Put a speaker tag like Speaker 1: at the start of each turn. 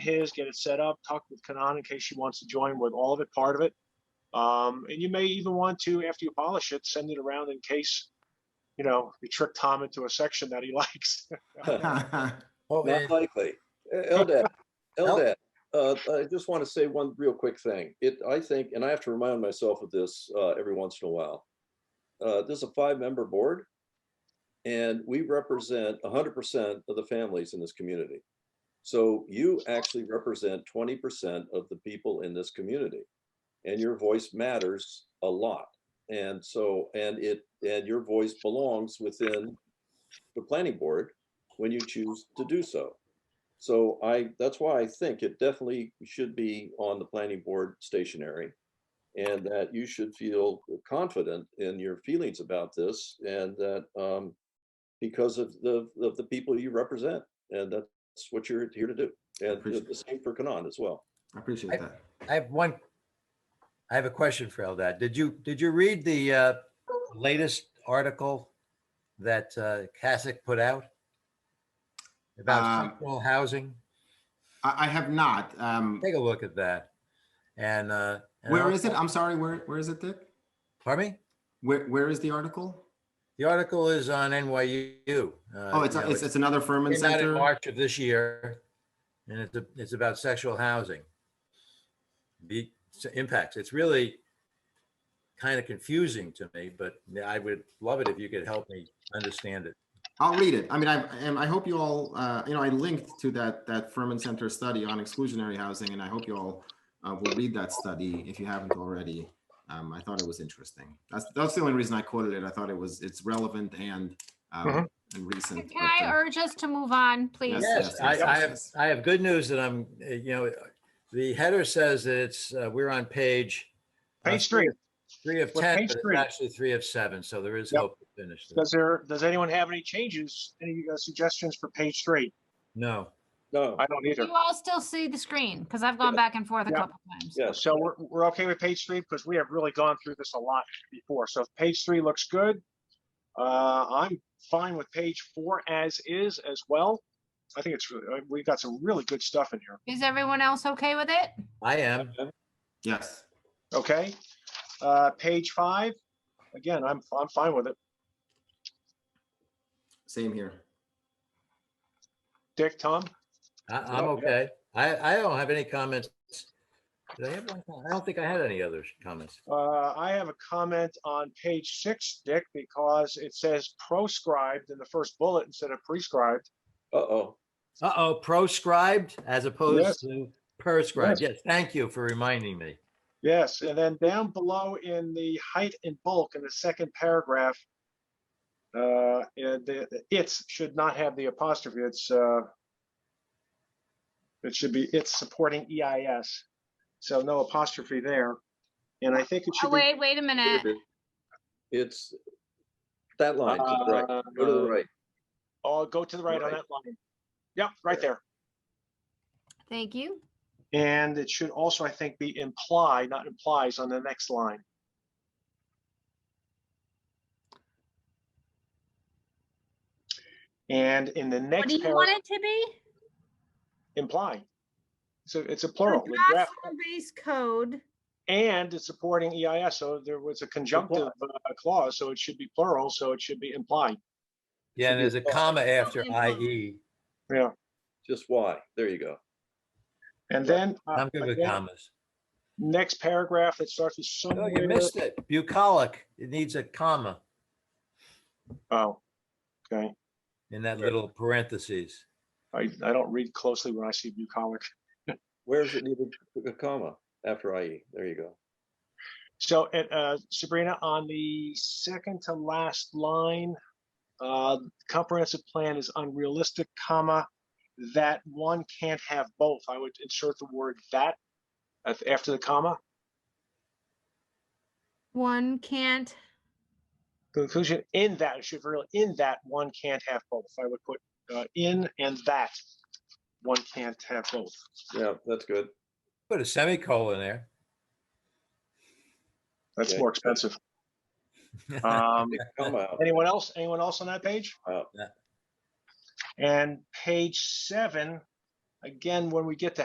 Speaker 1: his, get it set up, talk with Kanan in case she wants to join with all of it, part of it. Um, and you may even want to, after you polish it, send it around in case, you know, you trick Tom into a section that he likes.
Speaker 2: Oh,
Speaker 3: Not likely. Uh, Eldad, Eldad, uh, I just want to say one real quick thing. It, I think, and I have to remind myself of this uh, every once in a while. Uh, This is a five-member board, and we represent hundred percent of the families in this community. So you actually represent twenty percent of the people in this community, and your voice matters a lot. And so, and it, and your voice belongs within the planning board, when you choose to do so. So I, that's why I think it definitely should be on the planning board stationary. And that you should feel confident in your feelings about this and that, um, because of the, of the people you represent. And that's what you're here to do. And the
Speaker 4: Appreciate
Speaker 3: the same for Kanan as well.
Speaker 4: I appreciate that.
Speaker 2: I have one, I have a question for Eldad. Did you, did you read the uh, latest article that uh, Kasich put out?
Speaker 4: Um,
Speaker 2: About affordable housing?
Speaker 4: I, I have not. Um,
Speaker 2: Take a look at that. And. uh, and
Speaker 4: where is it?
Speaker 2: also-
Speaker 4: I'm sorry, where, where is it, Dick?
Speaker 2: Pardon me?
Speaker 4: Where, where is the article?
Speaker 2: The article is on NYU.
Speaker 4: Oh, it's, it's, it's another Furman
Speaker 2: Came out in
Speaker 4: Center.
Speaker 2: March of this year, and it's, a- it's about sexual housing. The s- impacts, it's really kind of confusing to me, but I would love it if you could help me understand it.
Speaker 4: I'll read it. I mean, I, and I hope you all, uh, you know, I linked to that, that Furman Center study on exclusionary housing, and I hope you all uh, will read that study if you haven't already. Um, I thought it was interesting. That's, that's the only reason I quoted it. I thought it was, it's relevant and, um,
Speaker 1: Mhm.
Speaker 4: and recent.
Speaker 5: Can I
Speaker 4: but, uh,
Speaker 5: urge us to move on, please?
Speaker 4: Yes,
Speaker 2: Yes,
Speaker 4: yes,
Speaker 2: I,
Speaker 4: yes,
Speaker 2: I
Speaker 4: yes,
Speaker 2: have,
Speaker 4: yes.
Speaker 2: I have good news that I'm, uh, you know, the header says that it's, uh, we're on page uh,
Speaker 1: Page three,
Speaker 2: Three of
Speaker 1: We're
Speaker 2: 10,
Speaker 1: page
Speaker 2: but it's
Speaker 1: three.
Speaker 2: actually three of seven, so there is
Speaker 1: Yep.
Speaker 2: hope to finish this.
Speaker 1: does there, does anyone have any changes, any uh, suggestions for page three?
Speaker 2: No,
Speaker 3: No,
Speaker 1: I don't
Speaker 5: Do
Speaker 1: either.
Speaker 5: you all still see the screen? Because I've gone
Speaker 3: Yes.
Speaker 5: back and forth a
Speaker 1: Yeah.
Speaker 5: couple times.
Speaker 3: yes,
Speaker 1: So we're, we're okay with page three because we have really gone through this a lot before. So if page three looks good. Uh, I'm fine with page four as is as well. I think it's, re- uh, we've got some really good stuff in here.
Speaker 5: Is everyone else okay with it?
Speaker 2: I am.
Speaker 4: Yes.
Speaker 1: Okay, uh, page five, again, I'm, I'm fine with it.
Speaker 4: Same here.
Speaker 1: Dick, Tom,
Speaker 2: I, I'm okay. I, I don't have any comments. Did I have one? com- I don't think I had any other comments.
Speaker 1: uh, I have a comment on page six, Dick, because it says proscribed in the first bullet instead of prescribed.
Speaker 3: uh-oh.
Speaker 2: Uh-oh, proscribed as
Speaker 1: Yes.
Speaker 2: opposed to prescribed. Yes, thank you for reminding me.
Speaker 1: Yes, and then down below in the height and bulk in the second paragraph, uh, and the, the it's should not have the apostrophe. It's, uh, it should be, it's supporting EIS. So no apostrophe there. And I think it
Speaker 5: Oh,
Speaker 1: should be.
Speaker 5: Wait, wait a minute.
Speaker 3: It's that line, to the right. go to
Speaker 1: uh,
Speaker 3: the right.
Speaker 1: Oh, go to the right on
Speaker 3: Right.
Speaker 1: that line. Yep, right there.
Speaker 5: Thank you.
Speaker 1: And it should also, I think, be imply, not implies on the next line. And in the
Speaker 5: What do
Speaker 1: next
Speaker 5: you
Speaker 1: paragraph,
Speaker 5: want it to be?
Speaker 1: imply. So it's a plural. with
Speaker 5: Address
Speaker 1: graph-
Speaker 5: Home-based code.
Speaker 1: And it's supporting EIS, so there was a conjunctive uh, clause, so it should be plural, so it should be imply.
Speaker 2: Yeah, and there's a comma after E.
Speaker 5: Something-
Speaker 2: IE.
Speaker 1: Yeah,
Speaker 3: Just why? There you go.
Speaker 1: and then uh,
Speaker 2: I'm good with
Speaker 1: again,
Speaker 2: commas.
Speaker 1: next paragraph that starts with
Speaker 2: Oh,
Speaker 1: somewhere.
Speaker 2: you missed it. Bucolic, it needs a comma
Speaker 1: Oh, okay.
Speaker 2: in that little parentheses.
Speaker 1: I, I don't read closely when I see bucolic.
Speaker 3: Where is it needed? A comma after IE. There you go.
Speaker 1: So, and, uh, Sabrina, on the second to last line, uh, comprehensive plan is unrealistic, comma, that one can't have both. I would insert the word that af- after the comma.
Speaker 5: One can't,
Speaker 1: Conclusion, in that, it should really, in that, one can't have both. I would put, uh, in and that, one can't have both.
Speaker 3: Yeah, that's good.
Speaker 2: Put a semicolon there.
Speaker 1: That's
Speaker 3: Okay.
Speaker 1: more expensive. Um,
Speaker 3: Comma out.
Speaker 1: Anyone else, anyone else on that page?
Speaker 3: Wow.
Speaker 2: Yeah.
Speaker 1: And page seven, again, when we get to